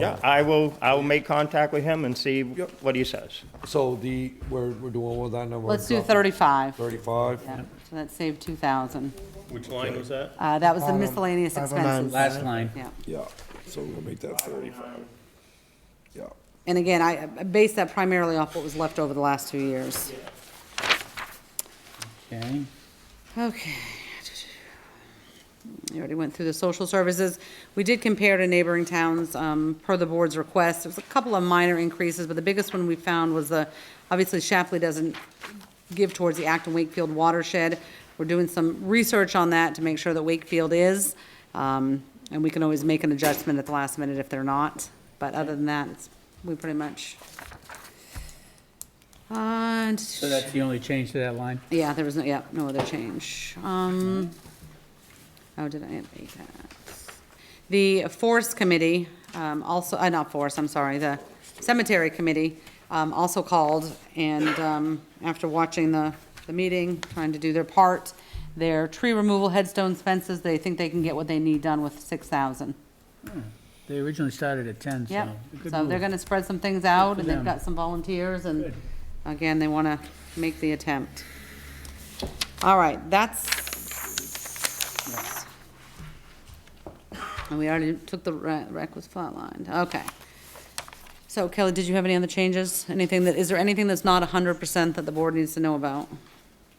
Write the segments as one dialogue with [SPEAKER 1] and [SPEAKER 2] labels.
[SPEAKER 1] Yeah, I will, I will make contact with him and see what he says.
[SPEAKER 2] So the, we're, we're doing what that number?
[SPEAKER 3] Let's do 35.
[SPEAKER 2] Thirty-five?
[SPEAKER 3] Yeah, so that saved 2,000.
[SPEAKER 1] Which line was that?
[SPEAKER 3] Uh, That was the miscellaneous expenses.
[SPEAKER 4] Last line.
[SPEAKER 3] Yeah.
[SPEAKER 2] Yeah, so we're gonna make that thirty-five. Yeah.
[SPEAKER 3] And again, I I based that primarily off what was left over the last two years.
[SPEAKER 4] Okay.
[SPEAKER 3] Okay. You already went through the social services. We did compare to neighboring towns, um, per the board's request. There was a couple of minor increases, but the biggest one we found was the, obviously Shapley doesn't give towards the Acton Wakefield watershed. We're doing some research on that to make sure that Wakefield is, um, and we can always make an adjustment at the last minute if they're not. But other than that, it's, we pretty much. uh, And.
[SPEAKER 4] So that's the only change to that line?
[SPEAKER 3] Yeah, there was no, yeah, no other change. Um, how did I make that? The Forest Committee, um, also, uh, not Forest, I'm sorry, the Cemetery Committee, um, also called, and, um, after watching the, the meeting, trying to do their part, their tree removal, headstones, fences, they think they can get what they need done with six thousand.
[SPEAKER 4] They originally started at 10, so.
[SPEAKER 3] Yep,
[SPEAKER 4] good
[SPEAKER 3] so they're
[SPEAKER 4] move.
[SPEAKER 3] gonna spread some things out,
[SPEAKER 4] for
[SPEAKER 3] and they've
[SPEAKER 4] them.
[SPEAKER 3] got some volunteers, and
[SPEAKER 4] Good.
[SPEAKER 3] again, they wanna make the attempt. All right, that's. And we already took the re- rec was flatlined, okay. So Kelly, did you have any other changes? Anything that, is there anything that's not hundred percent that the board needs to know about?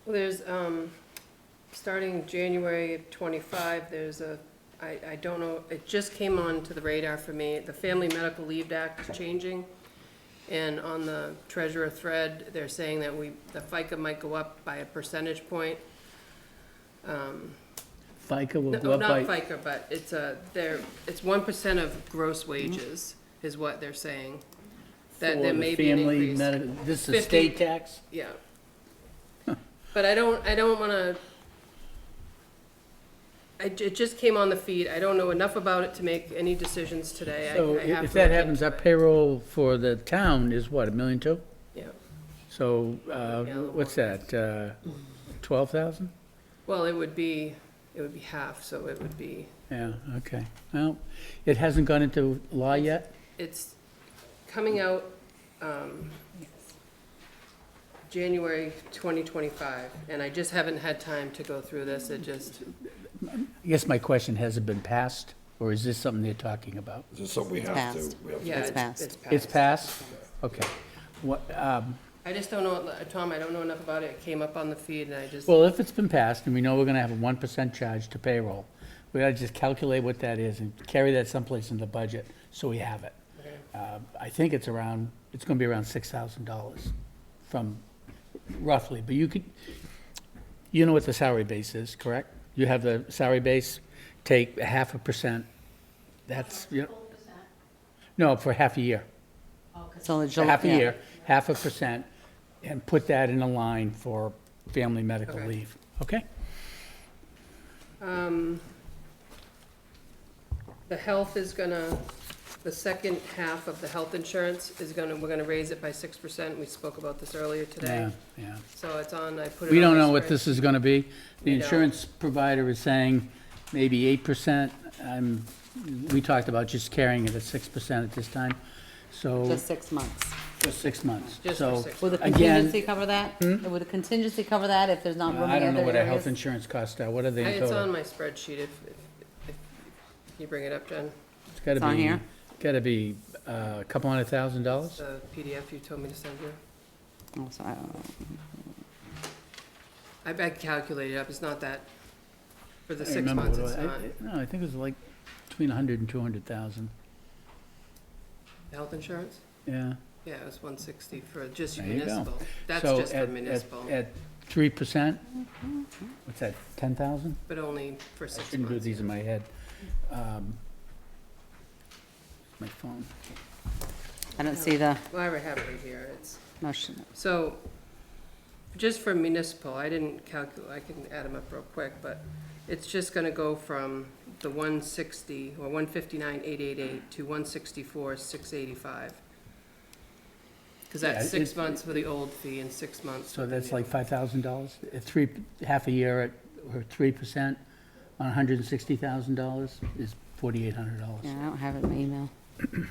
[SPEAKER 5] Well, there's, um, starting January of twenty-five, there's a, I, I don't know, it just came on to the radar for me. The Family Medical Leave Act is changing. And on the treasurer thread, they're saying that we, the FICA might go up by a percentage point.
[SPEAKER 4] FICA will go
[SPEAKER 5] No,
[SPEAKER 4] up
[SPEAKER 5] Not
[SPEAKER 4] by,
[SPEAKER 5] FICA, but it's a, they're, it's one percent of gross wages is what they're saying.
[SPEAKER 4] Mm-hmm.
[SPEAKER 5] That
[SPEAKER 4] for
[SPEAKER 5] there
[SPEAKER 4] the
[SPEAKER 5] may be an
[SPEAKER 4] family,
[SPEAKER 5] increase.
[SPEAKER 4] medi- this is a
[SPEAKER 5] 50.
[SPEAKER 4] state tax?
[SPEAKER 5] Yeah. But I don't, I don't wanna, I, ju- it just came on the feed, I don't know enough about it to make any decisions today. I-
[SPEAKER 4] So
[SPEAKER 5] I have
[SPEAKER 4] if
[SPEAKER 5] to
[SPEAKER 4] that
[SPEAKER 5] look
[SPEAKER 4] happens,
[SPEAKER 5] into
[SPEAKER 4] our
[SPEAKER 5] it.
[SPEAKER 4] payroll for the town is what, a million two?
[SPEAKER 5] Yeah,
[SPEAKER 4] So, uh,
[SPEAKER 5] Yeah, a little
[SPEAKER 4] what's that, uh, 12,000?
[SPEAKER 5] well, it would be, it would be half, so it would be,
[SPEAKER 4] Yeah, okay. Well, it hasn't gone into law yet?
[SPEAKER 5] it's coming out, um, January twenty twenty-five, and I just haven't had time to go through this, it just,
[SPEAKER 4] I guess my question, has it been passed, or is this something they're talking about?
[SPEAKER 2] Is this something we have
[SPEAKER 3] passed.
[SPEAKER 2] to, we have to
[SPEAKER 5] yeah,
[SPEAKER 3] It's
[SPEAKER 5] it's,
[SPEAKER 3] passed.
[SPEAKER 5] it's passed.
[SPEAKER 4] It's passed? Okay. What, um,
[SPEAKER 5] I just don't know, Tom, I don't know enough about it, it came up on the feed and I just.
[SPEAKER 4] Well, if it's been passed, and we know we're gonna have a one percent charge to payroll, we ought to just calculate what that is and carry that someplace in the budget, so we have it. Uh, I think it's around, it's gonna be around six thousand dollars from roughly, but you could, you know what the salary base is, correct? You have the salary base, take a half a percent, that's, you know. No, for half a year
[SPEAKER 3] So the July-
[SPEAKER 4] half a
[SPEAKER 3] yeah.
[SPEAKER 4] year, half a percent, and put that in a line for family medical
[SPEAKER 5] Okay.
[SPEAKER 4] leave, okay?
[SPEAKER 5] Um, The health is gonna, the second half of the health insurance is gonna, we're gonna raise it by six percent. We spoke about this earlier
[SPEAKER 4] Yeah,
[SPEAKER 5] today.
[SPEAKER 4] yeah.
[SPEAKER 5] So it's on, I put it on.
[SPEAKER 4] We don't
[SPEAKER 5] my
[SPEAKER 4] know what
[SPEAKER 5] spreadsheet.
[SPEAKER 4] this is gonna be. The
[SPEAKER 5] We don't.
[SPEAKER 4] insurance provider is saying maybe eight percent. Um, we talked about just carrying it at six percent at this time, so,
[SPEAKER 3] Just six months.
[SPEAKER 4] for six months.
[SPEAKER 5] Just for
[SPEAKER 4] So,
[SPEAKER 5] six
[SPEAKER 3] Would the
[SPEAKER 4] again, Hmm?
[SPEAKER 3] contingency cover that? Would the contingency cover that if there's not room in
[SPEAKER 4] uh, I
[SPEAKER 3] other
[SPEAKER 4] don't know what our health
[SPEAKER 3] areas?
[SPEAKER 4] insurance costs are, what are they in
[SPEAKER 5] It's on
[SPEAKER 4] total?
[SPEAKER 5] my spreadsheet if, if if you bring it up, Jen,
[SPEAKER 4] It's gotta
[SPEAKER 3] It's on
[SPEAKER 4] be,
[SPEAKER 3] here.
[SPEAKER 4] gotta be uh, a couple hundred thousand dollars?
[SPEAKER 5] the PDF you told me to send you.
[SPEAKER 3] Oh, so I don't know.
[SPEAKER 5] I I calculated up, it's not that, for the
[SPEAKER 4] I
[SPEAKER 5] six
[SPEAKER 4] remember
[SPEAKER 5] months,
[SPEAKER 4] what
[SPEAKER 5] it's
[SPEAKER 4] it was.
[SPEAKER 5] not.
[SPEAKER 4] I- I- No, I think it was like between a hundred and two hundred thousand,
[SPEAKER 5] Health insurance?
[SPEAKER 4] yeah.
[SPEAKER 5] Yeah, it was one sixty for just
[SPEAKER 4] There you go.
[SPEAKER 5] municipal. That's
[SPEAKER 4] So
[SPEAKER 5] just
[SPEAKER 4] at-
[SPEAKER 5] for
[SPEAKER 4] at-
[SPEAKER 5] municipal, Mm-hmm.
[SPEAKER 4] At three percent, what's that, ten thousand?
[SPEAKER 5] but only for
[SPEAKER 4] I
[SPEAKER 5] six
[SPEAKER 4] shouldn't do
[SPEAKER 5] months.
[SPEAKER 4] these in my head. Um, My phone.
[SPEAKER 3] I don't see the,
[SPEAKER 5] Well, I have it right here, it's.
[SPEAKER 3] no, sh-
[SPEAKER 5] So, just for municipal, I didn't calculate, I can add them up real quick, but it's just gonna go from the one sixty, or one fifty-nine, eight eight eight, to one sixty-four, six eighty-five. Cause
[SPEAKER 4] Yeah,
[SPEAKER 5] that's six
[SPEAKER 4] it-
[SPEAKER 5] months for the old fee and six months.
[SPEAKER 4] So
[SPEAKER 5] for the
[SPEAKER 4] that's
[SPEAKER 5] new.
[SPEAKER 4] like five thousand dollars, at three, half a year at, or three percent on hundred and sixty thousand dollars is forty-eight hundred dollars.
[SPEAKER 3] yeah, I don't have it in my email.